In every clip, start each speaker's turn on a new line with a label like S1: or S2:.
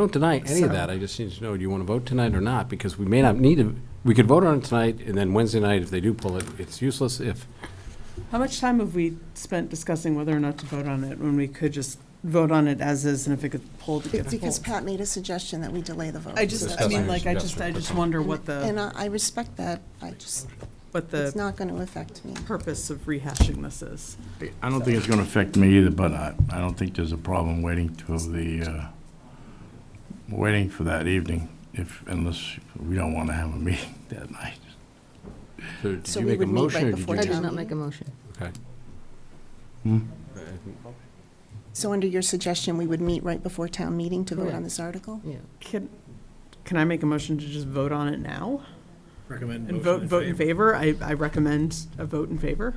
S1: Don't deny any of that. I just need to know, do you want to vote tonight or not? Because we may not need to, we could vote on it tonight, and then Wednesday night, if they do pull it, it's useless if,
S2: How much time have we spent discussing whether or not to vote on it, when we could just vote on it as is, and if it gets pulled, it gets
S3: Because
S2: pulled?
S3: Pat made a suggestion that we delay the vote.
S2: I just, I mean, like, I just, I just wonder what
S3: And
S2: the,
S3: I I respect that, I just,
S2: what
S3: it's
S2: the
S3: not going to affect me.
S2: purpose of rehashing this is.
S4: I don't think it's going to affect me either, but I, I don't think there's a problem waiting till the, uh, waiting for that evening, if, unless we don't want to have a meeting that night.
S1: so did
S3: So
S1: you
S3: we
S1: make a
S3: would meet
S1: motion
S3: right
S1: or did you
S3: before
S5: I
S1: just?
S5: did not make a motion.
S1: Okay. uh,
S3: So under your suggestion, we would meet right before town meeting to vote on
S5: Correct.
S3: this article?
S5: Yeah.
S2: Can, can I make a motion to just vote on it now?
S6: Recommend
S2: And vote, vote in favor? I, I recommend a vote in favor.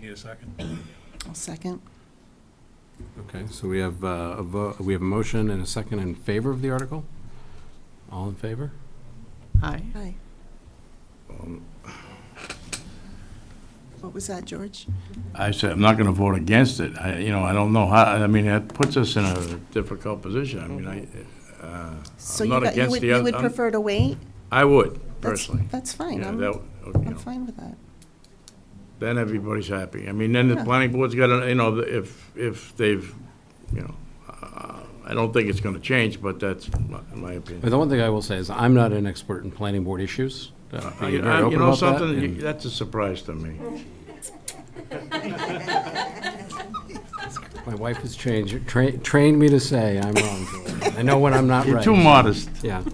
S6: Need a second?
S3: I'll second.
S1: Okay, so we have, uh, a vo- we have a motion and a second in favor of the article? All in favor?
S2: Aye.
S3: Aye.
S4: Um,
S3: What was that, George?
S4: I said, I'm not going to vote against it. I, you know, I don't know how, I mean, that puts us in a difficult position. I mean, I, uh,
S3: So
S4: I'm
S3: you
S4: not
S3: got- you
S4: against
S3: would-
S4: the
S3: You
S4: other-
S3: would
S4: I'm-
S3: prefer to wait?
S4: I would,
S3: That's-
S4: personally.
S3: That's fine,
S4: Yeah,
S3: I'm,
S4: that, you
S3: I'm
S4: know,
S3: fine with that.
S4: Then everybody's happy. I mean, then the
S3: Yeah.
S4: planning board's got, to you know, if, if they've, you know, uh, I don't think it's going to change, but that's my my opinion.
S1: But the one thing I will say is, I'm not an expert in planning board issues. Uh,
S4: I-
S1: you're very
S4: I- You
S1: open
S4: know
S1: about that,
S4: something,
S1: and-
S4: You- that's a surprise to me.
S1: My wife has changed, tra- trained me to say I'm wrong. George. I know when I'm not
S4: You're
S1: right.
S4: too modest.
S1: Yeah.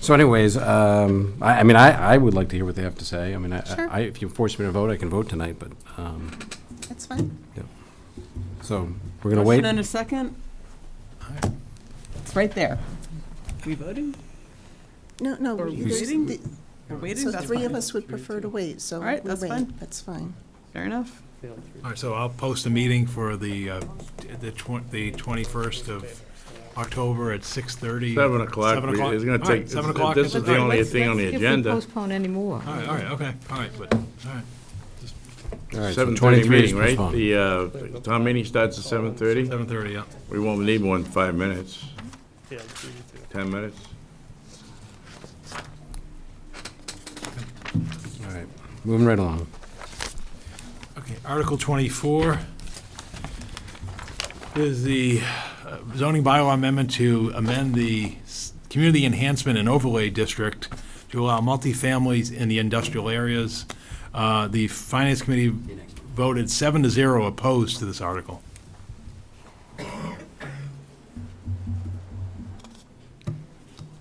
S1: So anyways, um, I, I mean, I, I would like to hear what they have to say. I mean, I-
S3: Sure.
S1: I, if you force me to vote, I can vote tonight, but, um,
S3: That's fine.
S1: so we're gonna wait.
S2: Motion and a second? It's right there. We voting?
S3: No, no.
S2: Or
S3: there's
S2: waiting?
S3: the-
S2: We're waiting?
S3: So
S2: That's
S3: three of
S2: fine.
S3: us would prefer to wait, so
S2: All
S3: we
S2: right, that's fine.
S3: wait. That's fine.
S2: Fair enough.
S6: All right, so I'll post a meeting for the, uh, the twen- the 21st of October at 6:30.
S4: Seven o'clock,
S6: Seven
S4: we-
S6: o'clock?
S4: it's gonna
S6: All right,
S4: take-
S6: Seven
S4: this-
S6: o'clock.
S4: this is the
S6: all right.
S4: only
S5: Let's-
S4: thing on
S5: let's-
S4: the
S5: If
S4: agenda.
S5: we postpone anymore.
S6: All right, all right, okay, all right, but, all right,
S1: All right, so
S4: 7:30
S1: 23 is
S4: meeting, right?
S1: postponed.
S4: The uh, town meeting starts at 7:30?
S6: 7:30, yeah.
S4: We won't need more than five minutes. Ten minutes?
S1: All right, moving right along.
S6: Okay, Article 24 is the uh, zoning bylaw amendment to amend the s- Community Enhancement and Overlay District to allow multifamilies in the industrial areas. Uh, The Finance Committee voted seven to zero opposed to this article.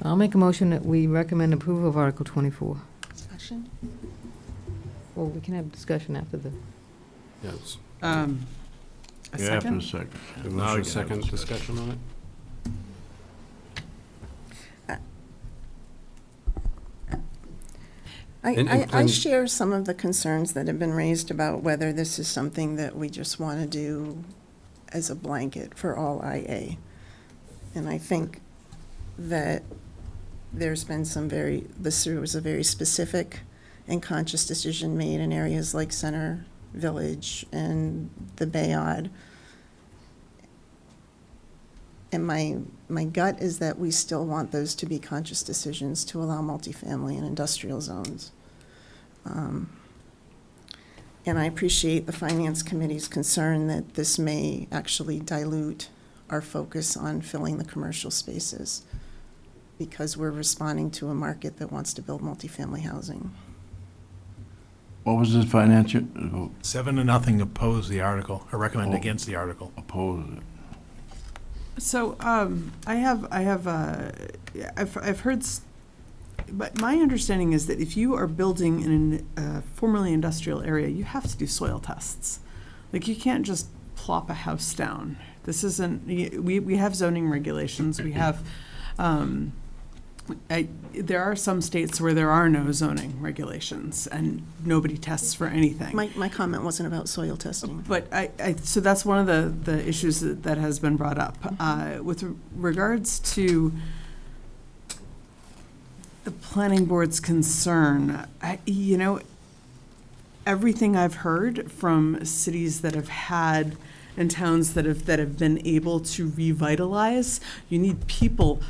S5: I'll make a motion that we recommend approval of Article 24.
S3: Discussion?
S5: Well, we can have discussion after the,
S1: Yes.
S2: Um, A
S4: Yeah, after
S2: second?
S4: second.
S1: A
S4: Now
S1: motion,
S4: we can have
S1: second discussion on it? And-
S3: I,
S1: and
S3: I, I
S1: plan-
S3: share some of the concerns that have been raised about whether this is something that we just want to do as a blanket for all IA. And I think that there's been some very, this was a very specific and conscious decision made in areas like Center Village and the Bayard. And my, my gut is that we still want those to be conscious decisions to allow multifamily and industrial zones. Um, And I appreciate the Finance Committee's concern that this may actually dilute our focus on filling the commercial spaces because we're responding to a market that wants to build multifamily housing.
S4: What was the financial, uh,
S6: Seven to nothing opposed the article, or recommend
S4: Oh.
S6: against the article.
S4: opposed it?
S2: So, um, I have, I have, uh, I've, I've heard, s- but my understanding is that if you are building in a formerly industrial area, you have to do soil tests. Like, you can't just plop a house down. This isn't, y- we, we have zoning regulations, we have, um, I, there are some states where there are no zoning regulations and nobody tests for anything.
S3: My, my comment wasn't about soil testing.
S2: But I, I, so that's one of the, the issues that, that has been brought up. Uh, with regards to the planning board's concern, I, you know, everything I've heard from cities that have had and towns that have, that have been able to revitalize. You need people